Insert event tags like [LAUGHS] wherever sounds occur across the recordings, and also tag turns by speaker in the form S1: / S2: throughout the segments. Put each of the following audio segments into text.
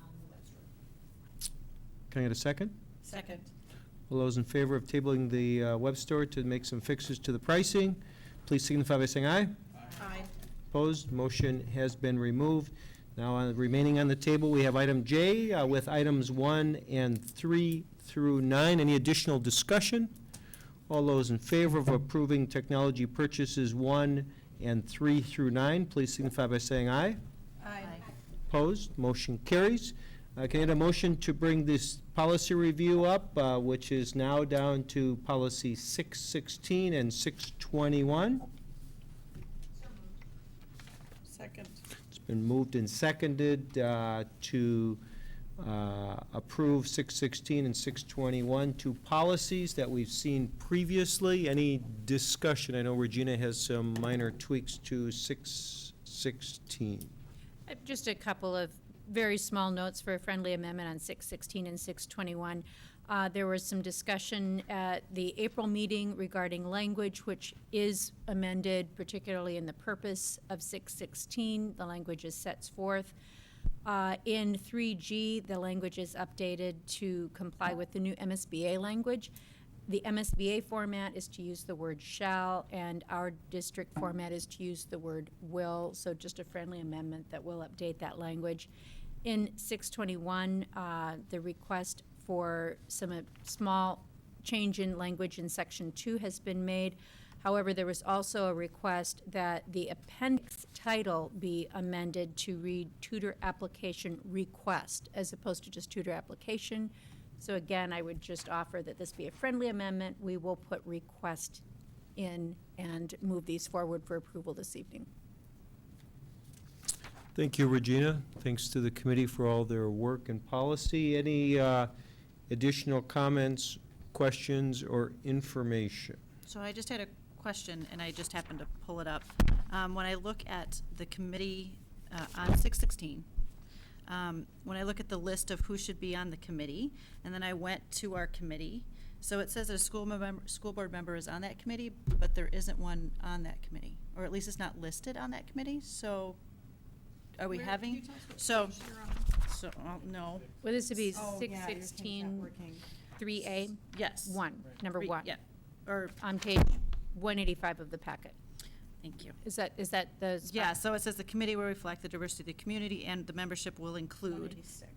S1: Um,
S2: Can I get a second?
S1: Second.
S2: All those in favor of tabling the uh, web store to make some fixes to the pricing, please signify by saying aye.
S1: Aye.
S2: Opposed, motion has been removed. Now, uh, remaining on the table, we have item J uh, with items one and three through nine. Any additional discussion? All those in favor of approving technology purchases one and three through nine, please signify by saying aye.
S1: Aye.
S2: Opposed, motion carries. Uh, Can I get a motion to bring this policy review up, uh, which is now down to policy 616 and 621?
S1: Second.
S2: It's been moved and seconded uh, to uh, approve 616 and 621, two policies that we've seen previously. Any discussion? I know Regina has some minor tweaks to 616.
S3: Uh, Just a couple of very small notes for a friendly amendment on 616 and 621. Uh, There was some discussion at the April meeting regarding language, which is amended, particularly in the purpose of 616. The language is sets forth. Uh, In 3G, the language is updated to comply with the new MSBA language. The MSBA format is to use the word shall, and our district format is to use the word will, so just a friendly amendment that will update that language. In 621, uh, the request for some uh, small change in language in Section 2 has been made. However, there was also a request that the appendix title be amended to read tutor application request, as opposed to just tutor application. So again, I would just offer that this be a friendly amendment. We will put request in and move these forward for approval this evening.
S2: Thank you, Regina. Thanks to the committee for all their work and policy. Any uh, additional comments, questions, or information?
S1: So I just had a question, and I just happened to pull it up. Um, When I look at the committee uh, on 616, um, when I look at the list of who should be on the committee, and then I went to our committee, so it says that a school member, school board member is on that committee, but there isn't one on that committee, or at least it's not listed on that committee, so are we having? So, so, uh, no,
S3: Well, this would be
S4: Oh,
S3: six
S4: yeah, your thing's not
S3: sixteen
S4: working.
S3: three A,
S1: yes.
S3: one, number
S1: Re-
S3: one,
S1: Yeah, or,
S3: on page one eighty-five of the packet.
S1: thank you.
S3: Is that, is that the? spot?
S1: Yeah, so it says the committee will reflect the diversity of the community and the membership will include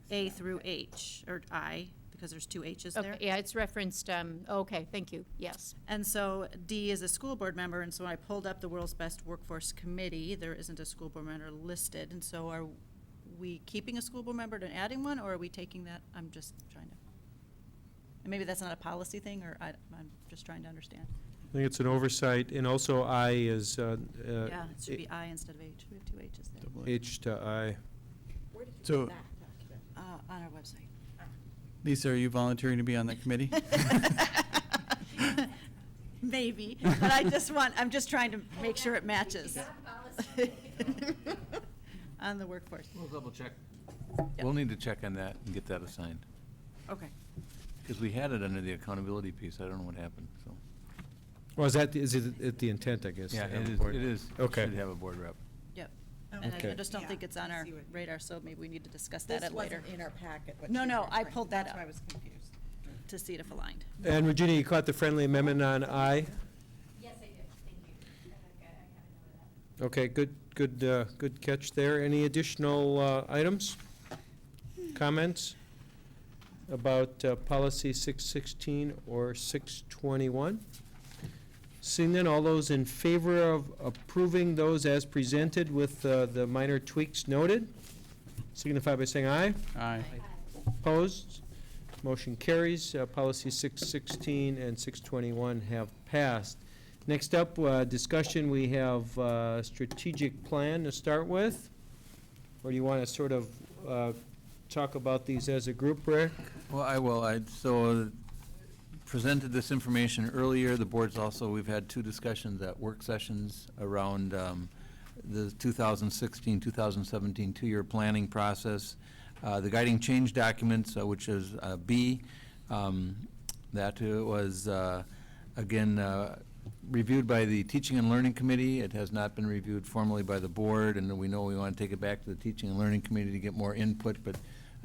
S1: A through H, or I, because there's two H's
S3: Okay,
S1: there.
S3: Yeah, it's referenced, um, okay, thank you, yes.
S1: And so D is a school board member, and so when I pulled up the World's Best Workforce Committee, there isn't a school board member listed, and so are we keeping a school board member and adding one, or are we taking that? I'm just trying to, and maybe that's not a policy thing, or I, I'm just trying to understand.
S2: I think it's an oversight, and also I is, uh, uh,
S1: Yeah, it should be I instead of H, we have two H's there,
S2: H to I.
S5: So,
S1: uh, on our website.
S5: Lisa, are you volunteering to be on that committee?
S1: [LAUGHS] Maybe, but I just want, I'm just trying to make sure it matches. [LAUGHS] On the workforce,
S6: We'll double check.
S1: Yeah.
S6: We'll need to check on that and get that assigned,
S1: okay.
S6: because we had it under the accountability piece, I don't know what happened, so.
S2: Well, is that, is it at the intent, I guess? to
S6: Yeah,
S2: have
S6: it
S2: a
S6: is,
S2: board?
S6: it is.
S2: Okay.
S6: Should have a board rep.
S1: Yep. And I
S2: Okay.
S1: just don't think it's on our radar, so maybe we need to discuss that at later
S4: in our packet.
S1: what No, she's no, I referring- pulled that that's
S4: That's
S1: up. why
S4: why I
S1: I
S4: was confused.
S1: to see it if aligned.
S2: And Regina, you caught the friendly amendment on I?
S3: Yes, I did, thank you.
S2: Okay, good, good, uh, good catch there. Any additional uh, items? Comments about uh, policy 616 or 621? Seeing then, all those in favor of approving those as presented with uh, the minor tweaks noted, signify by saying aye.
S5: Aye.
S2: Opposed? Motion carries. Uh, Policy 616 and 621 have passed. Next up, uh, discussion, we have uh, strategic plan to start with. Or do you want to sort of uh, talk about these as a group, Rick?
S6: Well, I will, I, so uh, presented this information earlier, the board's also, we've had two discussions at work sessions around um, the 2016, 2017 two-year planning process. Uh, The guiding change documents, uh, which is uh, B, um, that uh, was, uh, again, uh, reviewed by the Teaching and Learning Committee. It has not been reviewed formally by the board, and we know we want to take it back to the Teaching and Learning Committee to get more input, but